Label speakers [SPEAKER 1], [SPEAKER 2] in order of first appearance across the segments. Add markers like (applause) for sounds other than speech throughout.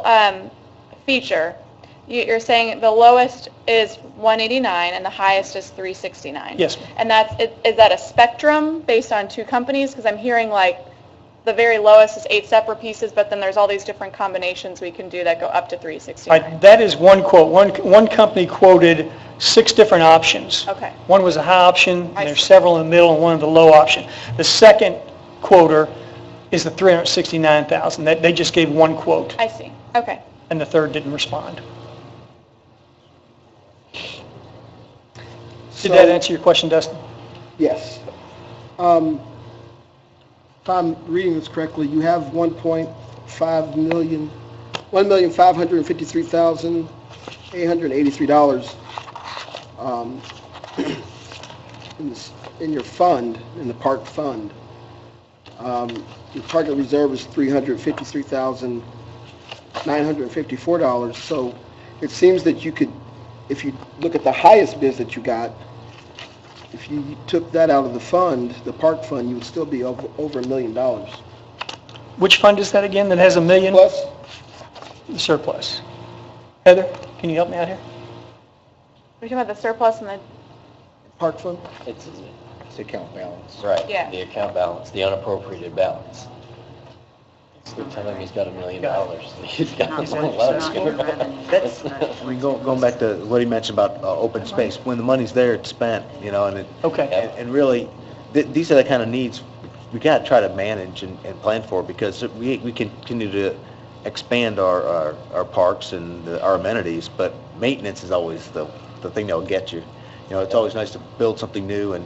[SPEAKER 1] um, feature, you- you're saying the lowest is 189 and the highest is 369?
[SPEAKER 2] Yes, ma'am.
[SPEAKER 1] And that's, i- is that a spectrum based on two companies? Because I'm hearing like the very lowest is eight separate pieces, but then there's all these different combinations we can do that go up to
[SPEAKER 2] I-
[SPEAKER 1] 369.
[SPEAKER 2] That is one quote. One, one company quoted six different options.
[SPEAKER 1] Okay.
[SPEAKER 2] One was a high option, and
[SPEAKER 1] I
[SPEAKER 2] there's
[SPEAKER 1] see.
[SPEAKER 2] several in the middle, and one of the low option. The second quoter is the 369,000. That, they just gave one quote,
[SPEAKER 1] I see, okay.
[SPEAKER 2] and the third didn't respond. Did that
[SPEAKER 3] So-
[SPEAKER 2] answer your question, Dustin?
[SPEAKER 3] Yes. Um, If I'm reading this correctly, you have 1.5 million, $1,553,883 um, (clears throat) in this- in your fund, in the park fund. Um, Your target reserve is $353,954, so it seems that you could, if you look at the highest bid that you got, if you took that out of the fund, the park fund, you would still be over, over a million dollars.
[SPEAKER 2] Which fund is that again, that has a million
[SPEAKER 3] Plus,
[SPEAKER 2] surplus? Heather, can you help me out here?
[SPEAKER 1] We're talking about the surplus and the,
[SPEAKER 3] park fund?
[SPEAKER 4] It's,
[SPEAKER 5] It's account balance.
[SPEAKER 4] right,
[SPEAKER 1] Yeah.
[SPEAKER 4] the account balance, the unappropriated balance. We're telling him he's got a million dollars, he's got a
[SPEAKER 6] Not
[SPEAKER 4] lot
[SPEAKER 6] budget,
[SPEAKER 4] of
[SPEAKER 6] not
[SPEAKER 4] going on.
[SPEAKER 6] revenue.
[SPEAKER 4] (laughs) That's-
[SPEAKER 6] That's-
[SPEAKER 5] We go, going back to what he mentioned about uh, open space, when the money's there, it's spent, you know, and it,
[SPEAKER 2] Okay.
[SPEAKER 5] and and really, th- these are the kind of needs we gotta try to manage and, and plan for, because we, we can continue to expand our, our, our parks and the- our amenities, but maintenance is always the, the thing that'll get you. You know, it's always nice to build something new and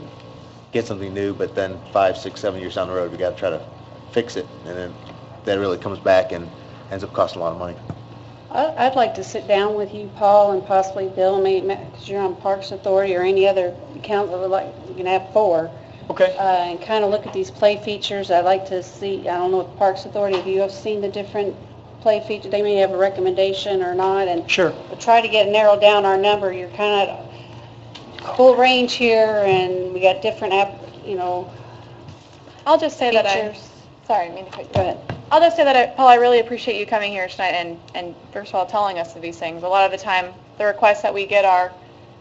[SPEAKER 5] get something new, but then five, six, seven years down the road, we gotta try to fix it, and then that really comes back and ends up costing a lot of money.
[SPEAKER 7] I- I'd like to sit down with you, Paul, and possibly Bill, because you're on Parks Authority or any other council, we're like, you can have four, uh,
[SPEAKER 2] Okay.
[SPEAKER 7] and kind of look at these play features. I'd like to see, I don't know if Parks Authority, if you have seen the different play features, they may have a recommendation or not, and
[SPEAKER 2] Sure.
[SPEAKER 7] but try to get, narrow down our number. You're kind of full range here, and we got different, app, you know,
[SPEAKER 1] I'll just say that I,
[SPEAKER 7] features.
[SPEAKER 1] sorry, I mean to cut you
[SPEAKER 7] Go ahead.
[SPEAKER 1] I'll just say that, I- Paul, I really appreciate you coming here tonight and, and first of all, telling us of these things. A lot of the time, the requests that we get are,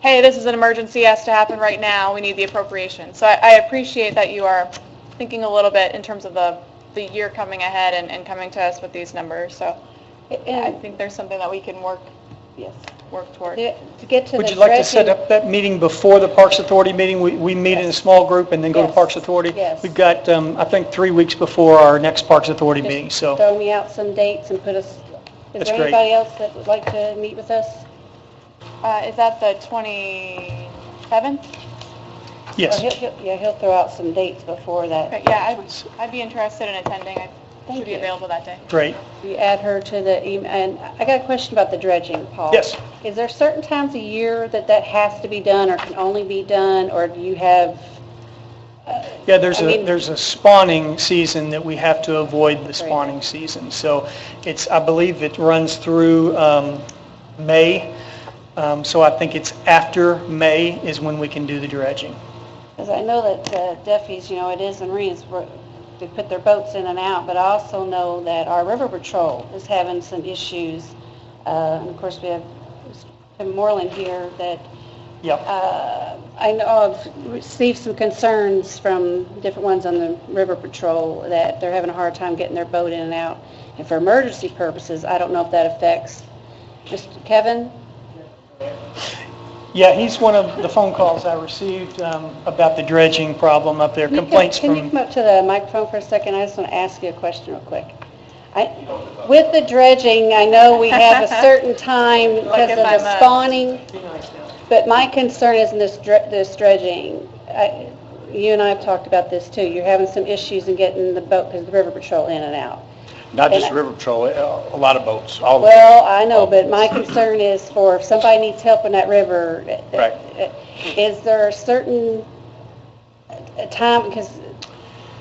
[SPEAKER 1] hey, this is an emergency, it has to happen right now, we need the appropriation. So I, I appreciate that you are thinking a little bit in terms of the, the year coming ahead and, and coming to us with these numbers. So I
[SPEAKER 7] And,
[SPEAKER 1] think there's something that we can work,
[SPEAKER 7] eh, yes,
[SPEAKER 1] work toward.
[SPEAKER 7] The- to get to the
[SPEAKER 2] Would you like to set
[SPEAKER 7] dredging-
[SPEAKER 2] up that meeting before the Parks Authority meeting? We, we meet in a small group and then go to
[SPEAKER 7] Yes.
[SPEAKER 2] Parks Authority?
[SPEAKER 7] Yes.
[SPEAKER 2] We've got, um, I think, three weeks before our next Parks Authority
[SPEAKER 7] Just
[SPEAKER 2] meeting, so
[SPEAKER 7] Throw me out some dates and put us, is
[SPEAKER 2] That's
[SPEAKER 7] there
[SPEAKER 2] great.
[SPEAKER 7] anybody else that would like to meet with us?
[SPEAKER 1] Uh, is that the 27th?
[SPEAKER 2] yes.
[SPEAKER 7] Well, he'll- he'll- uh, Yeah, he'll throw out some dates before
[SPEAKER 1] Okay,
[SPEAKER 7] that.
[SPEAKER 1] yeah, I'd, I'd be interested in attending. I
[SPEAKER 7] Thank
[SPEAKER 1] should be
[SPEAKER 7] you.
[SPEAKER 1] available that day.
[SPEAKER 2] Great.
[SPEAKER 7] You add her to the email, and I got a question about the dredging, Paul.
[SPEAKER 2] Yes.
[SPEAKER 7] Is there certain times a year that that has to be done or can only be done, or do you have,
[SPEAKER 2] Yeah, there's
[SPEAKER 7] I
[SPEAKER 2] a,
[SPEAKER 7] mean-
[SPEAKER 2] there's a spawning season that we have to avoid the spawning season. So it's, I believe it runs through um, May, Um, so I think it's after May is when we can do the dredging.
[SPEAKER 7] because I know that uh, Duffy's, you know, it is in Marine's, where they put their boats in and out, but I also know that our river patrol is having some issues. Uh, And of course, we have Tim Moreland here that
[SPEAKER 2] Yep.
[SPEAKER 7] Uh, I know I've received some concerns from different ones on the river patrol that they're having a hard time getting their boat in and out. And for emergency purposes, I don't know if that affects Mr. Kevin.
[SPEAKER 2] Yeah, he's one of the phone calls I received um, about the dredging problem up there,
[SPEAKER 7] Can you come-
[SPEAKER 2] complaints from...
[SPEAKER 7] Can you come up to the microphone for a second? I just want to ask you a question real quick. I- With the dredging, I know we have a
[SPEAKER 2] (laughs)
[SPEAKER 7] certain time because of
[SPEAKER 1] if I'm
[SPEAKER 7] the
[SPEAKER 1] a-
[SPEAKER 7] spawning, but my concern is in this dr- this dredging. I- You and I have talked about this too. You're having some issues in getting the boat, because the river patrol in and out.
[SPEAKER 8] Not just
[SPEAKER 7] And-
[SPEAKER 8] River Patrol, uh, a lot of boats, all of them.
[SPEAKER 7] Well, I know, but my concern is for, if somebody needs help in that river,
[SPEAKER 8] Right.
[SPEAKER 7] is there a certain uh, time, because,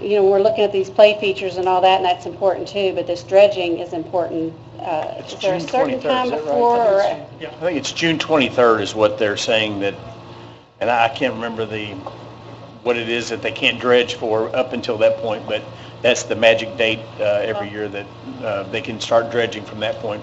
[SPEAKER 7] you know, we're looking at these play features and all that, and that's important too, but this dredging is important. Uh,
[SPEAKER 8] It's
[SPEAKER 7] Is there a
[SPEAKER 8] June
[SPEAKER 7] certain
[SPEAKER 8] 23rd,
[SPEAKER 7] time
[SPEAKER 8] is that right?
[SPEAKER 7] before, or,
[SPEAKER 8] Yeah, I think it's June 23rd is what they're saying that, and I can't remember the, what it is that they can't dredge for up until that point, but that's the magic date uh, every year that uh, they can start dredging from that point